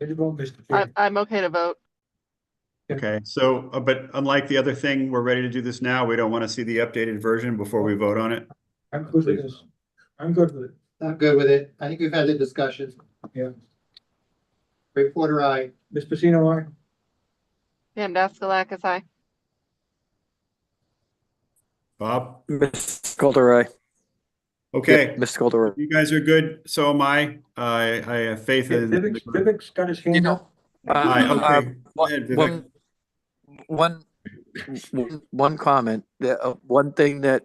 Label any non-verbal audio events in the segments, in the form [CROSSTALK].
Did you vote, Mr. I, Chair? I'm okay to vote. Okay, so, uh, but unlike the other thing, we're ready to do this now. We don't want to see the updated version before we vote on it. I'm good with this. I'm good with it. I'm good with it. I think we've had the discussion. Yeah. Reporter, I, Ms. Pacino, aye? Pam Daskalakis, aye. Bob? Mr. Calderay. Okay, Mr. Calderay. you guys are good. So am I. I, I have faith in. Vivek's, Vivek's got his hand up. Aye, Uh, okay. One- Go ahead, Vivek. One, one, one- one comment, the, uh, one thing that,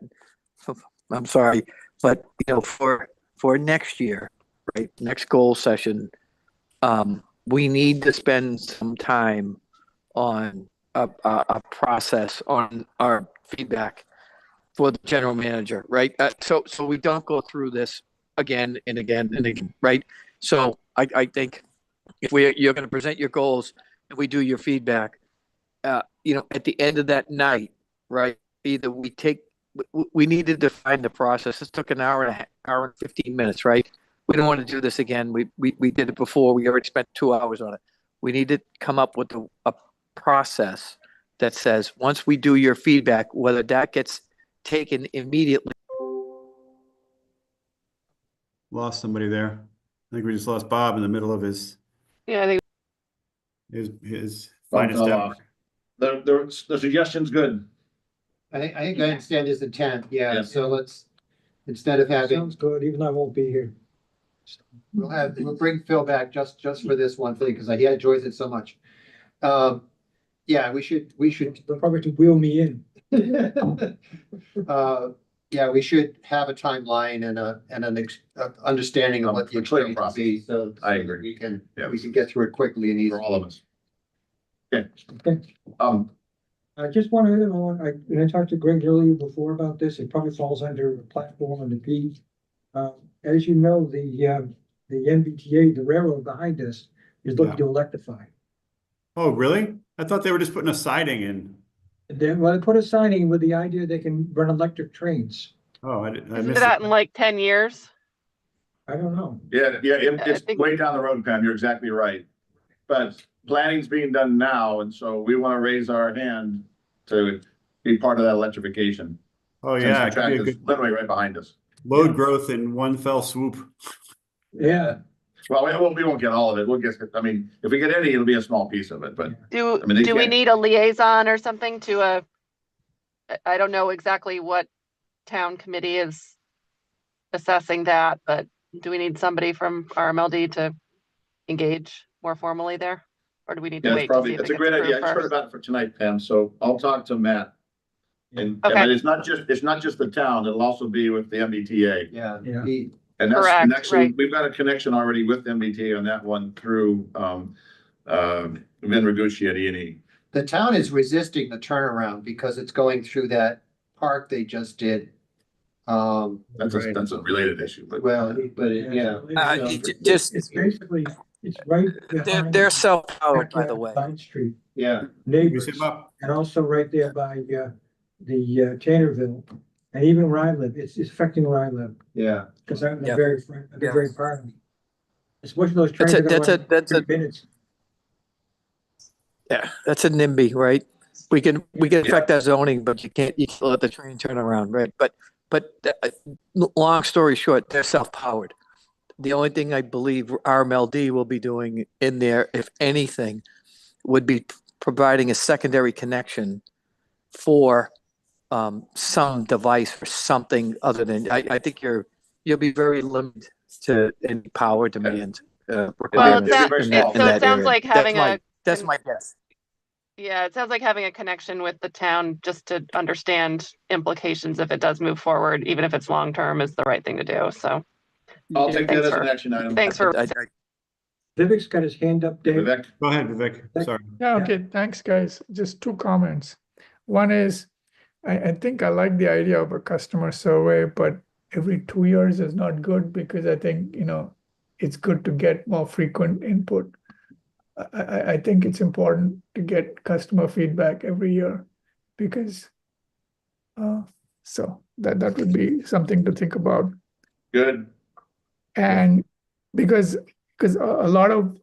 [LAUGHS] I'm sorry, but, you know, for, for next year, right, next goal session, um, we need to spend some time on a, a, a process on our feedback for the general manager, right? Uh, so, so we don't go through this again and again and again, right? So I, I think if we, you're gonna present your goals, and we do your feedback. Uh, you know, at the end of that night, right? Either we take, we, we need to define the process. This took an hour and a half, hour and fifteen minutes, right? We don't want to do this again. We, we, we did it before. We already spent two hours on it. We need to come up with a, a process that says, once we do your feedback, whether that gets taken immediately. Lost somebody there. I think we just lost Bob in the middle of his, Yeah, I think his, his Bob finest fell hour. off. The, the, the suggestion's good. I think, I think I understand his intent, yeah, Yeah. so let's, instead of having, Sounds good, even though I won't be here. we'll have, we'll bring Phil back just, just for this one thing, because he enjoys it so much. Um, yeah, we should, we should, They'll probably have to wheel me in. uh, yeah, we should have a timeline and a, and an ex- uh, understanding of what the A clear experience will be, so. I agree. We can, Yeah. we can get through it quickly and For easily. all of us. Okay. Okay. Um, I just want to, you know, I, and I talked to Greg earlier before about this, it probably falls under the platform and the P. Uh, as you know, the, uh, the MBTA, the railroad behind us, is looking to electrify. Oh, really? I thought they were just putting a siding in. And Then, well, they put a signing with the idea they can run electric trains. Oh, I didn't, I isn't missed that in it. like ten years? I don't know. yeah, yeah, it- I it's think- way down the road, Pam. You're exactly right. But planning's being done now, and so we want to raise our hand to be part of that electrification. Oh, since yeah. the it could track be a is good- Literally right behind us. Load growth in one fell swoop. Yeah, Well, we won't, we won't get all of it. We'll get, I mean, if we get any, it'll be a small piece of it, but Do, I mean, they do we can't- need a liaison or something to a, I- I don't know exactly what town committee is assessing that, but do we need somebody from RMLD to engage more formally there? Or do we need to yeah, wait it's to see probably, if it it's gets a great idea. I approved just heard first? about it for tonight, Pam, so I'll talk to Matt. And, Okay. and it's not just, it's not just the town, it'll also be with the MBTA. Yeah, Yeah. he- And that's, Correct, and actually, right. we've got a connection already with MBTA on that one through, um, um, Vin Ragusea at E and E. the town is resisting the turnaround because it's going through that park they just did. Um, That's a, that's a related issue, but. well, but it- yeah, Uh, It's, j- um, just- It's basically, it's right. They're, behind they're self-powered, by backyard the of way. Vine Street, yeah, You neighbors, said, Bob, and also right there by, uh, the, uh, Tannerville. And even where I live, it's it's affecting where I live, yeah. because I'm the Yeah. very, front- the Yeah. very part of it. It's one of those trains. That's a, that go that's a, in that's a, 30 Minutes. yeah, that's a NIMBY, right? We can, we can affect our zoning, but you can't, you can't let the train turn around, right? But, but, uh, l- long story short, they're self-powered. The only thing I believe RMLD will be doing in there, if anything, would be providing a secondary connection for, um, some device for something other than, I, I think you're, you'll be very limited to any power demand. uh, Well, requirements it sounds, very in small. it- that- in so it that sounds area. like That's having my- a, That's my guess. yeah, it sounds like having a connection with the town just to understand implications if it does move forward, even if it's long-term is the right thing to do, so. I'll take that Thanks as an for- action item. Thanks for, I- I- Vivek's got his hand up, Dave. Vivek, Go ahead, Vivek. Sorry. Yeah, Yeah. okay, thanks, guys. Just two comments. One is, I, I think I like the idea of a customer survey, but every two years is not good because I think, you know, it's good to get more frequent input. I, I, I- I think it's important to get customer feedback every year because, uh, so that, that would be something to think about. good. And because, because a, a lot of